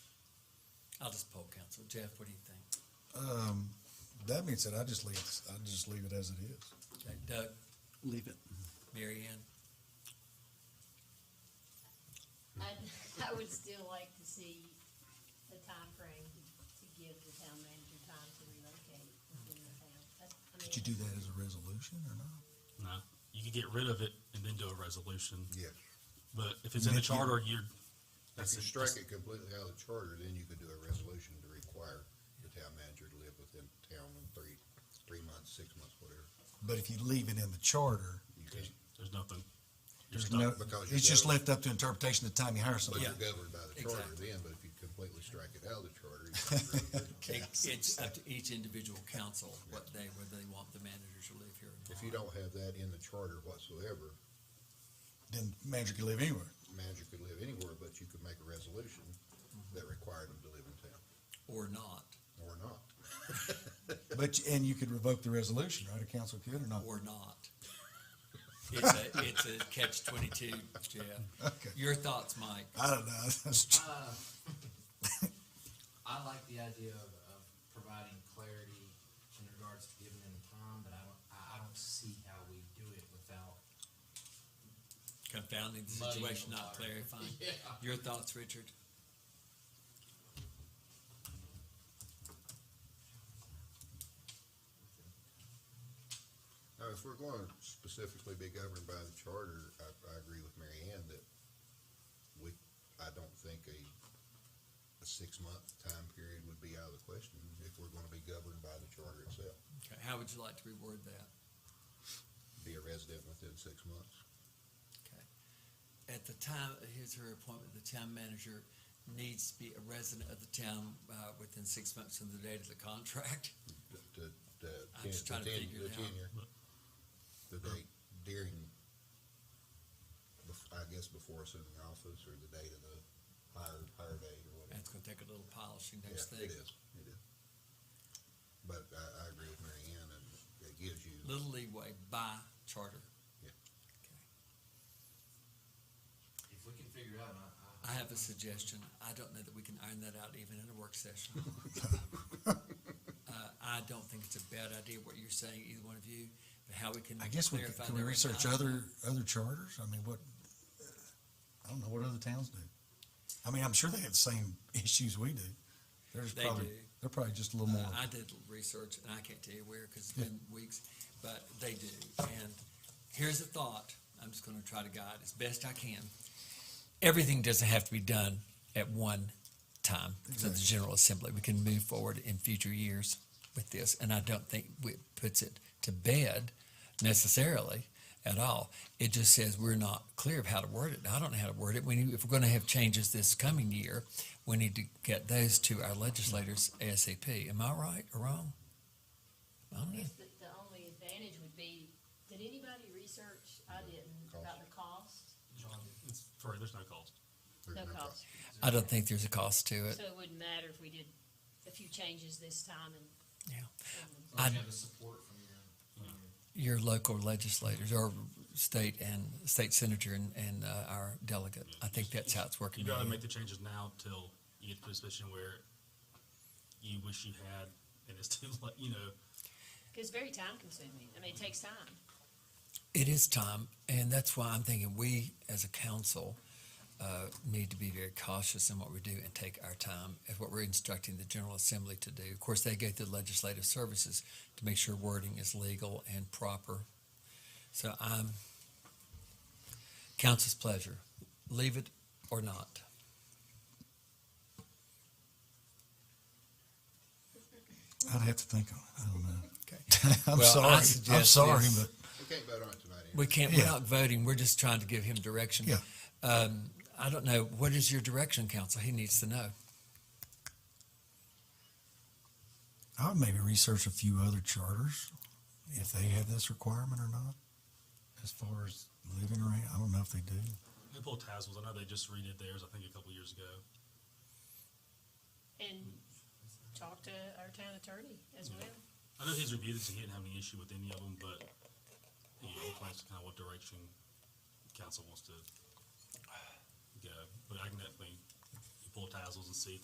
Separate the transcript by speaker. Speaker 1: I'll just poll council. Jeff, what do you think?
Speaker 2: Um, that means that I just leave, I just leave it as it is.
Speaker 1: Okay, Doug,
Speaker 3: Leave it.
Speaker 1: Mary Ann?
Speaker 4: I, I would still like to see the timeframe to give the town manager time to relocate within the town. That's- I mean,
Speaker 2: Did you do that as a resolution or not?
Speaker 5: No, you could get rid of it and then do a resolution,
Speaker 6: Yes.
Speaker 5: but if it's in the
Speaker 2: Make it-
Speaker 5: charter, you're, that's
Speaker 6: If you
Speaker 5: it.
Speaker 6: strike it completely out of the charter, then you could do a resolution to require the town manager to live within town in three, three months, six months, whatever.
Speaker 2: But if you leave it in the charter,
Speaker 6: You
Speaker 5: There's,
Speaker 6: can't,
Speaker 5: there's nothing. You're
Speaker 2: there's
Speaker 5: stuck.
Speaker 2: no,
Speaker 6: because you're
Speaker 2: it's just
Speaker 6: governed.
Speaker 2: left up to interpretation the time you hire
Speaker 6: but
Speaker 2: somebody.
Speaker 6: you're governed by the charter
Speaker 1: exactly.
Speaker 6: then, but if you completely strike it out of the charter, you can't really do
Speaker 1: It-
Speaker 6: it.
Speaker 1: It's up to each individual council what they, whether they want the managers to live here or not.
Speaker 6: If you don't have that in the charter whatsoever,
Speaker 2: Then manager can live anywhere.
Speaker 6: manager could live anywhere, but you could make a resolution that required them to live in town,
Speaker 1: Or not,
Speaker 6: or not.
Speaker 2: But, you- and you could revoke the resolution, right? A council could or not?
Speaker 1: or not. It's a, it's a catch twenty-two, Jeff.
Speaker 2: Okay.
Speaker 1: Your thoughts, Mike?
Speaker 2: I don't know. That's-
Speaker 7: Uh, I like the idea of, of providing clarity in regards to giving them time, but I don't, I, I don't see how we do it without.
Speaker 1: Confounding the
Speaker 7: muddying the
Speaker 1: situation, not
Speaker 7: water.
Speaker 1: clarifying.
Speaker 7: Yeah,
Speaker 1: Your thoughts, Richard?
Speaker 6: Now, if we're going to specifically be governed by the charter, I, I agree with Mary Ann that we, I don't think a, a six-month time period would be out of the question if we're gonna be governed by the charter itself.
Speaker 1: Okay, how would you like to reward that?
Speaker 6: Be a resident within six months.
Speaker 1: Okay. At the time of his or her appointment, the town manager needs to be a resident of the town, uh, within six months from the date of the contract.
Speaker 6: The, the,
Speaker 1: I'm
Speaker 6: the
Speaker 1: just trying to
Speaker 6: ten-
Speaker 1: figure
Speaker 6: the
Speaker 1: it out.
Speaker 6: tenure. The date during, bef- I guess before assuming office or the date of the hire, hire date or whatever.
Speaker 1: That's gonna take a little polishing next
Speaker 6: Yeah,
Speaker 1: thing.
Speaker 6: it is, it is. But I, I agree with Mary Ann, and it gives you,
Speaker 1: Little leeway by charter.
Speaker 6: Yeah.
Speaker 1: Okay.
Speaker 7: If we can figure it out, I, I.
Speaker 1: I have a suggestion. I don't know that we can iron that out even in a work session. Uh, I don't think it's a bad idea what you're saying, either one of you, but how we can
Speaker 2: I guess we, could-
Speaker 1: clarify
Speaker 2: can we
Speaker 1: that right
Speaker 2: research
Speaker 1: now.
Speaker 2: other, other charters? I mean, what, I don't know what other towns do. I mean, I'm sure they have the same issues we do. There's
Speaker 1: They
Speaker 2: probably,
Speaker 1: do.
Speaker 2: they're probably just a little
Speaker 1: Uh,
Speaker 2: more.
Speaker 1: I did research, and I can't tell you where, because it's been weeks, but they do. And here's a thought, I'm just gonna try to guide as best I can. Everything doesn't have to be done at one time, so the
Speaker 2: Exactly.
Speaker 1: General Assembly, we can move forward in future years with this, and I don't think it puts it to bed necessarily at all. It just says we're not clear of how to word it. I don't know how to word it. We need, if we're gonna have changes this coming year, we need to get those to our legislators ASAP. Am I right or wrong? I
Speaker 4: I
Speaker 1: don't know.
Speaker 4: guess the, the only advantage would be, did anybody research, I didn't, about the cost?
Speaker 5: It's free, there's no cost.
Speaker 6: there's
Speaker 4: No
Speaker 6: no
Speaker 4: cost.
Speaker 6: cost.
Speaker 1: I don't think there's a cost to it.
Speaker 4: So it wouldn't matter if we did a few changes this time and.
Speaker 1: Yeah.
Speaker 4: and-
Speaker 7: As long as
Speaker 1: I-
Speaker 7: you have the support from your, from your.
Speaker 1: Your local legislators or state and state senator and, and uh, our delegate. I think that's how it's working.
Speaker 5: You'd rather
Speaker 1: right
Speaker 5: make the changes now till you get to a position where you wish you had, and it's too late, you know,
Speaker 4: Cause it's very time consuming. I mean, it takes time.
Speaker 1: It is time, and that's why I'm thinking we, as a council, uh, need to be very cautious in what we do and take our time as what we're instructing the General Assembly to do. Of course, they go through legislative services to make sure wording is legal and proper. So I'm, council's pleasure, leave it or not.
Speaker 2: I'd have to think on it. I don't know.
Speaker 1: Okay.
Speaker 2: I'm
Speaker 1: Well, I
Speaker 2: sorry. I'm
Speaker 1: suggest
Speaker 2: sorry,
Speaker 1: this.
Speaker 2: but
Speaker 6: We can't vote on it tonight anyway.
Speaker 1: We can't, we're
Speaker 2: Yeah.
Speaker 1: not voting, we're just trying to give him direction.
Speaker 2: Yeah.
Speaker 1: Um, I don't know, what is your direction, council? He needs to know.
Speaker 2: I would maybe research a few other charters if they have this requirement or not. As far as living rate, I don't know if they do.
Speaker 5: they pull tassels. I know they just redid theirs, I think, a couple years ago.
Speaker 4: And talk to our town attorney as well.
Speaker 5: I know he's reviewed it, so he didn't have any issue with any of them, but you know, he plans to kind of what direction council wants to go. But I can definitely pull tassels and see if